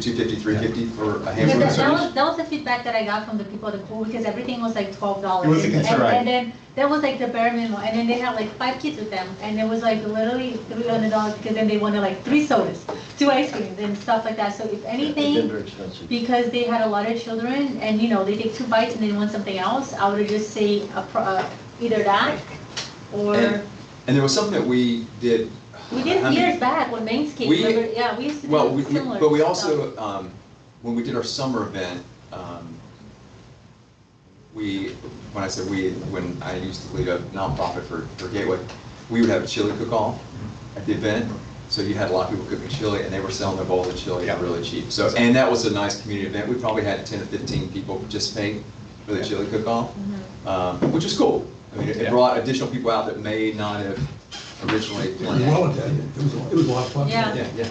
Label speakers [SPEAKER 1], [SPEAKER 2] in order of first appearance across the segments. [SPEAKER 1] 250, 350 for a
[SPEAKER 2] Yeah,
[SPEAKER 1] hamburger
[SPEAKER 2] that, that
[SPEAKER 1] sandwich?
[SPEAKER 2] was, that was the feedback that I got from the people at the pool, because everything was like twelve dollars.
[SPEAKER 1] It was a concern.
[SPEAKER 2] And then, that was like the bare minimum, and then they had like five kids with them, and it was like literally three hundred dollars, because then they wanted like three sodas, two ice creams, and stuff like that, so if
[SPEAKER 3] It's
[SPEAKER 2] anything,
[SPEAKER 3] very expensive.
[SPEAKER 2] because they had a lot of children, and you know, they take two bites and they want something else, I would just say, a pro- uh, either that, or,
[SPEAKER 1] And- And there was something that we did.
[SPEAKER 2] we did
[SPEAKER 1] I
[SPEAKER 2] it
[SPEAKER 1] mean,
[SPEAKER 2] years back when Maine's Kids,
[SPEAKER 1] we-
[SPEAKER 2] remember, yeah, we used to do
[SPEAKER 1] Well,
[SPEAKER 2] similar
[SPEAKER 1] we- we-
[SPEAKER 2] stuff.
[SPEAKER 1] but we also, um, when we did our summer event, um, we, when I said we, when I used to lead a nonprofit for for Gateway, we would have a chili cook-off at the event. So you had a lot of people cooking chili, and they were selling their bowl of chili at really cheap. So, and that was a nice community event. We probably had 10 to 15 people participate for the chili cook-off.
[SPEAKER 2] Mhm.
[SPEAKER 1] um, which is cool. I mean, it- it
[SPEAKER 4] Yeah.
[SPEAKER 1] brought additional people out that may not have originally
[SPEAKER 5] It was well
[SPEAKER 1] planned.
[SPEAKER 5] attended, it was, it was a lot of fun.
[SPEAKER 2] Yeah.
[SPEAKER 1] Yeah, yeah.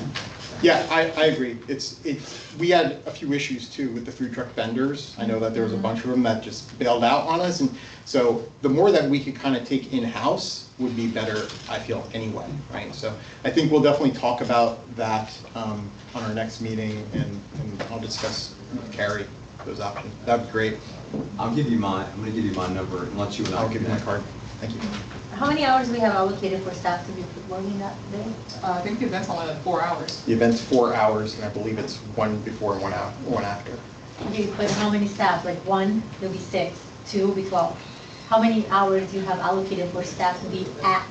[SPEAKER 4] Yeah, I, I agree. It's, it's, we had a few issues too with the food truck vendors. I know that there was a bunch of them that just bailed out on us. And so the more that we could kind of take in-house would be better, I feel, anyway, right? So I think we'll definitely talk about that um, on our next meeting and, and I'll discuss with Carrie those options. That'd be great.
[SPEAKER 1] I'll give you my, I'm gonna give you my number and let you and I
[SPEAKER 4] I'll give you my
[SPEAKER 1] connect.
[SPEAKER 4] card. Thank you.
[SPEAKER 2] How many hours we have allocated for staff to be working that day?
[SPEAKER 6] Uh, I think the event's only like four hours.
[SPEAKER 4] The event's four hours and I believe it's one before and one out, one after.
[SPEAKER 2] Okay, but how many staff, like one, there'll be six, two will be 12. How many hours do you have allocated for staff to be at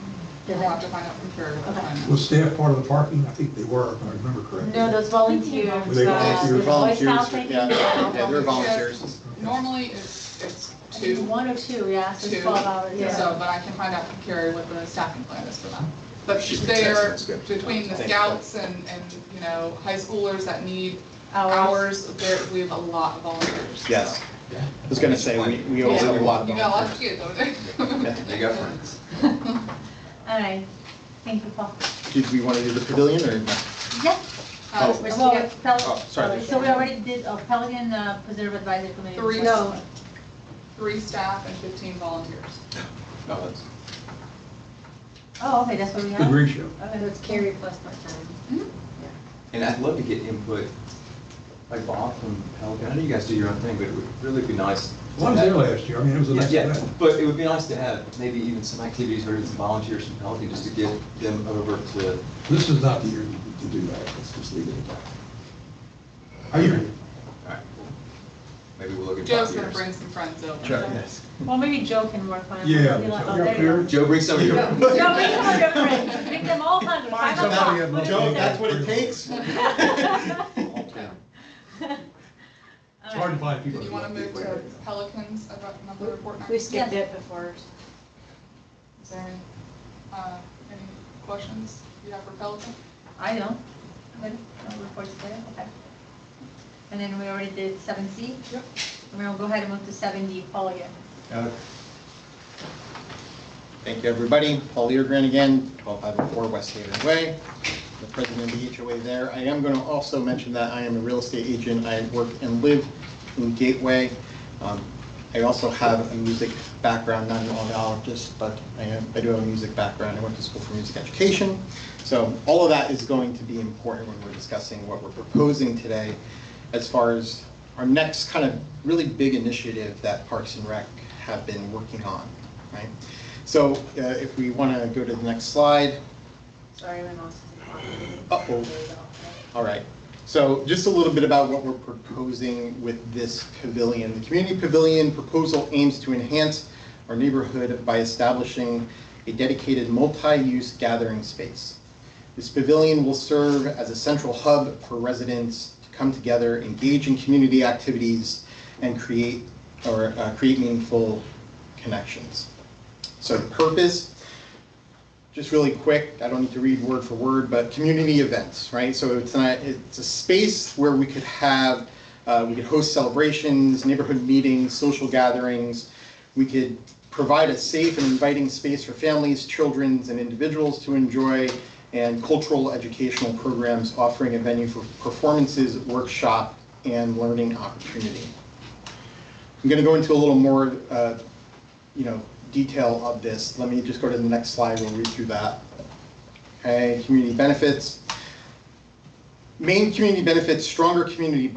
[SPEAKER 2] the
[SPEAKER 6] We'll have to
[SPEAKER 2] event?
[SPEAKER 6] find out from Carrie what the
[SPEAKER 2] Okay.
[SPEAKER 6] time is.
[SPEAKER 5] Was staff part of the parking? I think they were, if I remember correctly.
[SPEAKER 2] No, those volunteers.
[SPEAKER 5] Were they
[SPEAKER 2] uh,
[SPEAKER 5] volunteers?
[SPEAKER 2] the Boy
[SPEAKER 4] Volunteers,
[SPEAKER 2] Scouts, I think,
[SPEAKER 4] yeah,
[SPEAKER 2] uh,
[SPEAKER 4] yeah, they're
[SPEAKER 6] Just-
[SPEAKER 4] volunteers.
[SPEAKER 6] Normally, it's, it's
[SPEAKER 2] I think
[SPEAKER 6] two,
[SPEAKER 2] One or two, yeah, so
[SPEAKER 6] two.
[SPEAKER 2] it's 12 hours,
[SPEAKER 6] So,
[SPEAKER 2] yeah.
[SPEAKER 6] but I can find out from Carrie what the staffing plan is for them. But
[SPEAKER 4] She can text
[SPEAKER 6] they're
[SPEAKER 4] us, good.
[SPEAKER 6] between the
[SPEAKER 4] Thanks.
[SPEAKER 6] scouts and, and, you know, high schoolers that need
[SPEAKER 2] Hours.
[SPEAKER 6] hours, there, we have a lot of volunteers.
[SPEAKER 4] Yes.
[SPEAKER 1] Yeah.
[SPEAKER 4] I was gonna say, we, we always have a lot of
[SPEAKER 6] You got a lot of
[SPEAKER 4] volunteers.
[SPEAKER 6] kids over there.
[SPEAKER 1] They got friends.
[SPEAKER 2] All right, thank you, Paul.
[SPEAKER 4] Did we want to do the pavilion or? no?
[SPEAKER 2] Yeah.
[SPEAKER 6] Uh,
[SPEAKER 2] We're
[SPEAKER 6] well,
[SPEAKER 2] still at Pel-
[SPEAKER 4] Oh, sorry.
[SPEAKER 2] So we already did uh, Pelican uh, Preserve Advisory Committee.
[SPEAKER 6] Three,
[SPEAKER 2] No.
[SPEAKER 6] three staff and fifteen volunteers.
[SPEAKER 1] No, that's-
[SPEAKER 2] Oh, okay, that's what we
[SPEAKER 5] The
[SPEAKER 2] have.
[SPEAKER 5] green show.
[SPEAKER 2] Okay, so it's Carrie plus part-time.
[SPEAKER 1] And I'd love to get input, like Bob from Pelican, I know you guys do your own thing, but it would really be nice. to
[SPEAKER 5] One was
[SPEAKER 1] have-
[SPEAKER 5] there last year, I mean, it was a
[SPEAKER 1] Yeah,
[SPEAKER 5] nice
[SPEAKER 1] yeah,
[SPEAKER 5] event.
[SPEAKER 1] but it would be nice to have maybe even some activities or some volunteers from Pelican just to get them over to,
[SPEAKER 5] This is not the year to- to do that, let's just leave it at that. Are you,
[SPEAKER 1] alright, maybe we'll look at.
[SPEAKER 6] Joe's
[SPEAKER 1] five
[SPEAKER 6] gonna
[SPEAKER 1] years.
[SPEAKER 6] bring some friends over.
[SPEAKER 2] Well, maybe Joe can work on it.
[SPEAKER 5] Yeah.
[SPEAKER 2] Be like, oh,
[SPEAKER 5] Yeah,
[SPEAKER 2] there you go.
[SPEAKER 5] Karen.
[SPEAKER 1] Joe, bring some of your.
[SPEAKER 5] Yeah.
[SPEAKER 2] No, make them all your friends, make them all hungry, five
[SPEAKER 5] Find
[SPEAKER 2] o'clock.
[SPEAKER 5] somebody and
[SPEAKER 2] Put it
[SPEAKER 5] Joe,
[SPEAKER 2] in there.
[SPEAKER 5] that's what it
[SPEAKER 4] takes.
[SPEAKER 5] it's hard to find people.
[SPEAKER 6] Did you
[SPEAKER 5] that
[SPEAKER 6] wanna
[SPEAKER 5] like
[SPEAKER 6] move
[SPEAKER 5] it.
[SPEAKER 6] to Pelicans about another report next?
[SPEAKER 7] We skipped
[SPEAKER 2] Yes.
[SPEAKER 7] it before.
[SPEAKER 6] Is there any, uh, any questions you have for Pelican?
[SPEAKER 2] I don't. Good. No reports there, okay. And then we already did seven C? Yep. And we'll go ahead and move to seven D, Paul again.
[SPEAKER 4] Thank you, everybody. Paul Leargren again, 1254 West Haven Way, the president of the HOA there. I am going to also mention that I am a real estate agent. I work and live in Gateway. Um, I also have a music background, not an audiologist, but I am, I do have a music background. I went to school for music education. So all of that is going to be important when we're discussing what we're proposing today as far as our next kind of really big initiative that Parks and Rec have been working on, right? So uh, if we want to go to the next slide,
[SPEAKER 7] Sorry, my mom's.
[SPEAKER 4] Uh-oh. all right. So just a little bit about what we're proposing with this pavilion. The community pavilion proposal aims to enhance our neighborhood by establishing a dedicated multi-use gathering space. This pavilion will serve as a central hub for residents to come together, engage in community activities, and create, or uh, create meaningful connections. So the purpose, just really quick, I don't need to read word for word, but community events, right? So it's not, it's a space where we could have, uh, we could host celebrations, neighborhood meetings, social gatherings. We could provide a safe and inviting space for families, children, and individuals to enjoy and cultural educational programs, offering a venue for performances, workshop, and learning opportunity. I'm going to go into a little more, uh, you know, detail of this. Let me just go to the next slide, we'll read through that. Okay, community benefits. Main community benefits, stronger community